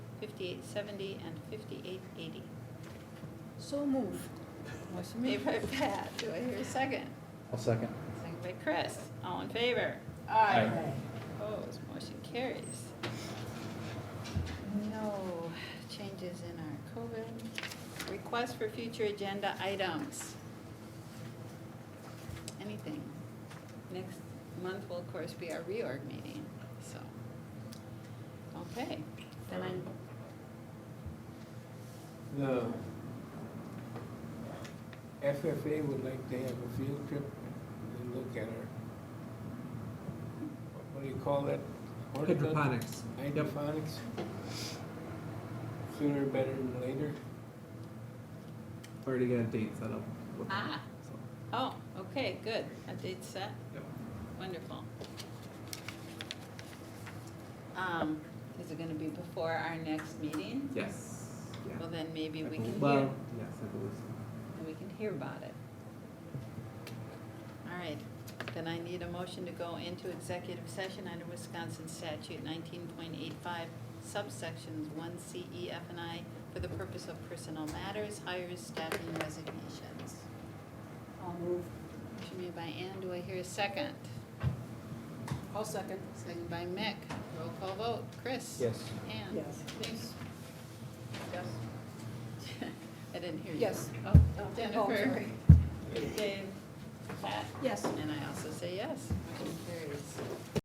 fifty-eight seventy, and fifty-eight eighty. So move. Motion Made made. by Pat, do I hear a second? I'll second. Second by Chris, all in favor? Aye. Opposed, motion carries. No changes in our COVID. Request for future agenda items. Anything? Next month will, of course, be our reorg meeting, so. Okay, then I'm, The FFA would like to have a field trip and look at our, what do you call that? Hydroponics. Hydroponics. Sooner better than later. Already got a date set up. with them, Ah. so, oh, okay, good. A date set, yep. wonderful. Um, is it gonna be before our next meeting? Yes. yeah. Well, then maybe I we can bel- hear, Well, yes, I believe so. and we can hear about it. All right, then I need a motion to go into executive session under Wisconsin statute nineteen point eight five subsections one C, E, F, and I for the purpose of personal matters, hires, staffing, resignations. I'll move. Motion made by Ann, do I hear a second? I'll second. Second by Mick, roll call vote, Chris? Yes. Ann? Yes. Yes. Yes. I didn't hear you. Yes. Oh, Oh, oh, Jennifer. sorry. Dave. Pat? Yes. And I also say yes, motion carries.